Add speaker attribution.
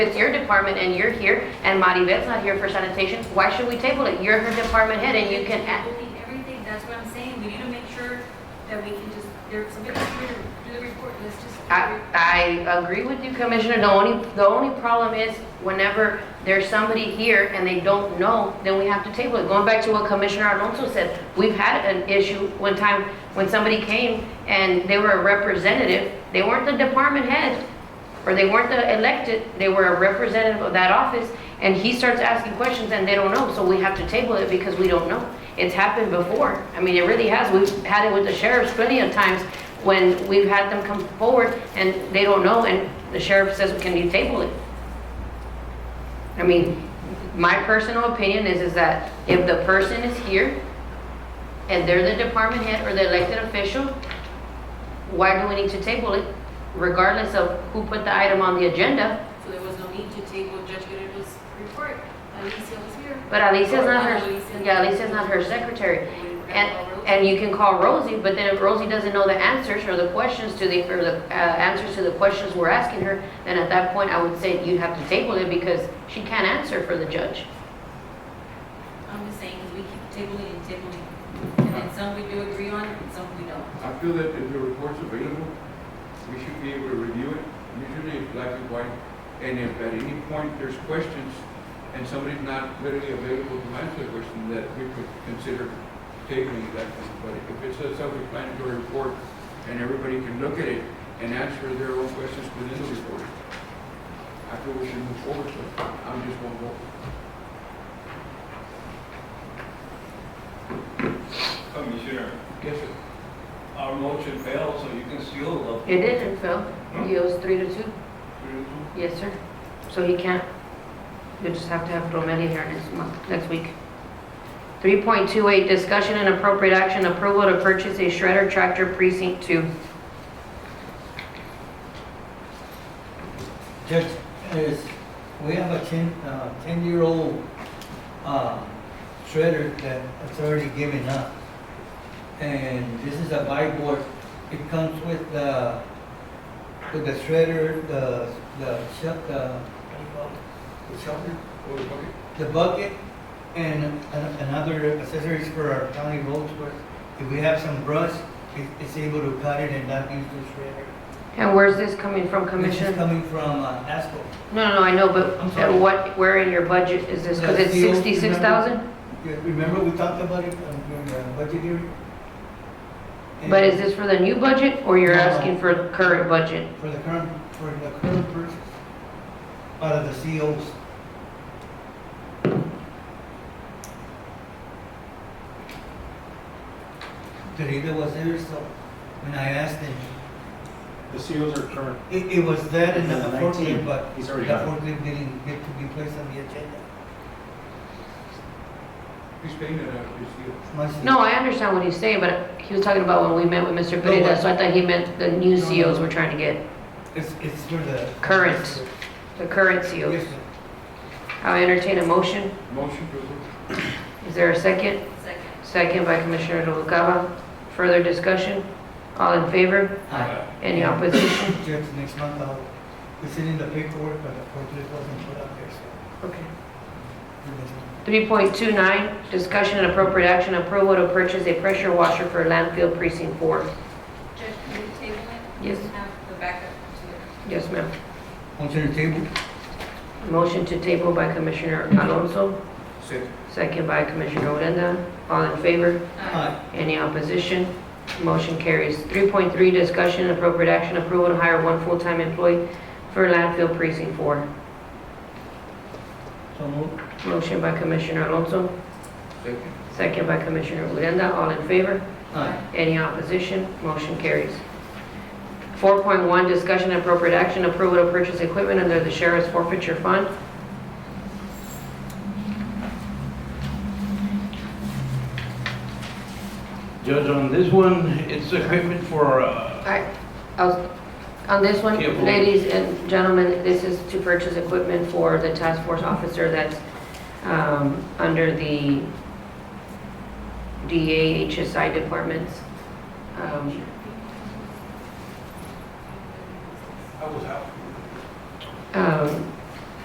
Speaker 1: It's your department and you're here, and Maribel's not here for sanitation, why should we table it? You're her department head and you can, act-
Speaker 2: Everything, everything, that's what I'm saying, we need to make sure that we can just, there, somebody's here to do the report, let's just.
Speaker 1: I, I agree with you, Commissioner, the only, the only problem is whenever there's somebody here and they don't know, then we have to table it. Going back to what Commissioner Alonso said, we've had an issue one time when somebody came and they were a representative, they weren't the department head, or they weren't the elected, they were a representative of that office, and he starts asking questions and they don't know, so we have to table it because we don't know. It's happened before. I mean, it really has. We've had it with the sheriffs plenty of times when we've had them come forward and they don't know, and the sheriff says, can you table it? I mean, my personal opinion is, is that if the person is here and they're the department head or the elected official, why do we need to table it regardless of who put the item on the agenda?
Speaker 2: So there was no need to table Judge Guerrero's report, Alicia was here.
Speaker 1: But Alicia's not her, yeah, Alicia's not her secretary. And, and you can call Rosie, but then if Rosie doesn't know the answers or the questions to the, or the, uh, answers to the questions we're asking her, then at that point, I would say you'd have to table it because she can't answer for the judge.
Speaker 2: I'm just saying, is we keep tabling and tabling, and then some we do agree on, and some we don't.
Speaker 3: I feel that if the report's available, we should be able to review it. Usually it's black and white, and if at any point there's questions and somebody's not readily available to answer the question, that we could consider tabling that. one. But if it's a self-explanatory report and everybody can look at it and answer their own questions within the report, I feel we should move forward, so I'm just one vote.
Speaker 4: Commissioner,
Speaker 3: Yes, sir.
Speaker 4: our motion failed, so you can still up
Speaker 1: It didn't, Phil. He owes three to two.
Speaker 4: through.
Speaker 1: Yes, sir. So he can't, you just have to have Romelia here next month, next week. 3.28, discussion and appropriate action, approval to purchase a shredder tractor precinct two.
Speaker 5: Just as we have a ten, uh, ten-year-old, uh, shredder that it's already given up. And this is a buy board. It comes with the, with the shredder, the, the shuck, the, what do you call it? The shovel,
Speaker 3: Hold the bucket.
Speaker 5: the bucket, and an- another accessories for our county roads. where If we have some brush, it, it's able to cut it and not use the shredder.
Speaker 1: And where's this coming from,
Speaker 5: This is
Speaker 1: Commissioner?
Speaker 5: coming from, uh, ASCO.
Speaker 1: No, no, no, I know,
Speaker 5: I'm
Speaker 1: but
Speaker 5: sorry.
Speaker 1: at what, where in your budget is this? Because it's
Speaker 5: That's the old-
Speaker 1: 66,000?
Speaker 5: Yeah, Remember we talked about it um, during the budget hearing?
Speaker 1: But is this for the new budget or you're
Speaker 5: No.
Speaker 1: asking for current budget?
Speaker 5: For the current, for the current purchase, out of the COs. Teresa was there, so when I asked him,
Speaker 6: The seals are current.
Speaker 5: it, it was that and the
Speaker 6: The 19,
Speaker 5: forklift, but the
Speaker 6: he's already got it.
Speaker 5: forklift didn't get to be placed on the agenda.
Speaker 3: He's paying it out, he's here.
Speaker 5: My
Speaker 1: No,
Speaker 5: CO.
Speaker 1: I understand what he's saying, but he was talking about when we met with Mr.
Speaker 5: No,
Speaker 1: Pereira,
Speaker 5: but-
Speaker 1: so I thought he meant the new
Speaker 5: No, no,
Speaker 1: COs
Speaker 5: no.
Speaker 1: we're trying to get,
Speaker 5: It's, it's for the.
Speaker 1: Current. the current COs.
Speaker 5: Yes, sir.
Speaker 1: I entertain a motion.
Speaker 3: Motion to approve.
Speaker 1: Is there a second?
Speaker 2: Second.
Speaker 1: Second by Commissioner Noguera. Further discussion? All in favor?
Speaker 5: Aye.
Speaker 1: Any opposition?
Speaker 5: Judge, next month I'll, we send in the paperwork, but the forklift wasn't put up there, so.
Speaker 1: Okay.
Speaker 5: we missed it.
Speaker 1: 3.29, discussion and appropriate action, approval to purchase a pressure washer for landfill precinct four.
Speaker 2: Judge, can we table it?
Speaker 1: Yes.
Speaker 2: And Have the backup to it.
Speaker 1: Yes, ma'am.
Speaker 5: Motion to table?
Speaker 1: Motion to table by Commissioner Alonso,
Speaker 3: Second.
Speaker 1: second by Commissioner Odena. All in favor?
Speaker 5: Aye.
Speaker 1: Any opposition? Motion carries. 3.3, discussion and appropriate action, approval to hire one full-time employee for landfill precinct four.
Speaker 5: So moved.
Speaker 1: Motion by Commissioner Alonso,
Speaker 3: Second.
Speaker 1: Second by Commissioner Urenda, all in favor?
Speaker 5: Aye.
Speaker 1: Any opposition? Motion carries. 4.1, discussion and appropriate action, approval to purchase equipment under the sheriff's forfeiture fund.
Speaker 7: Judge, on this one, it's equipment for, uh,
Speaker 1: I- I was- On this one,
Speaker 7: Yeah, well-
Speaker 1: ladies and gentlemen, this is to purchase equipment for the task force officer that's um, under the DA HSI departments. Um,
Speaker 3: I was out.
Speaker 1: um,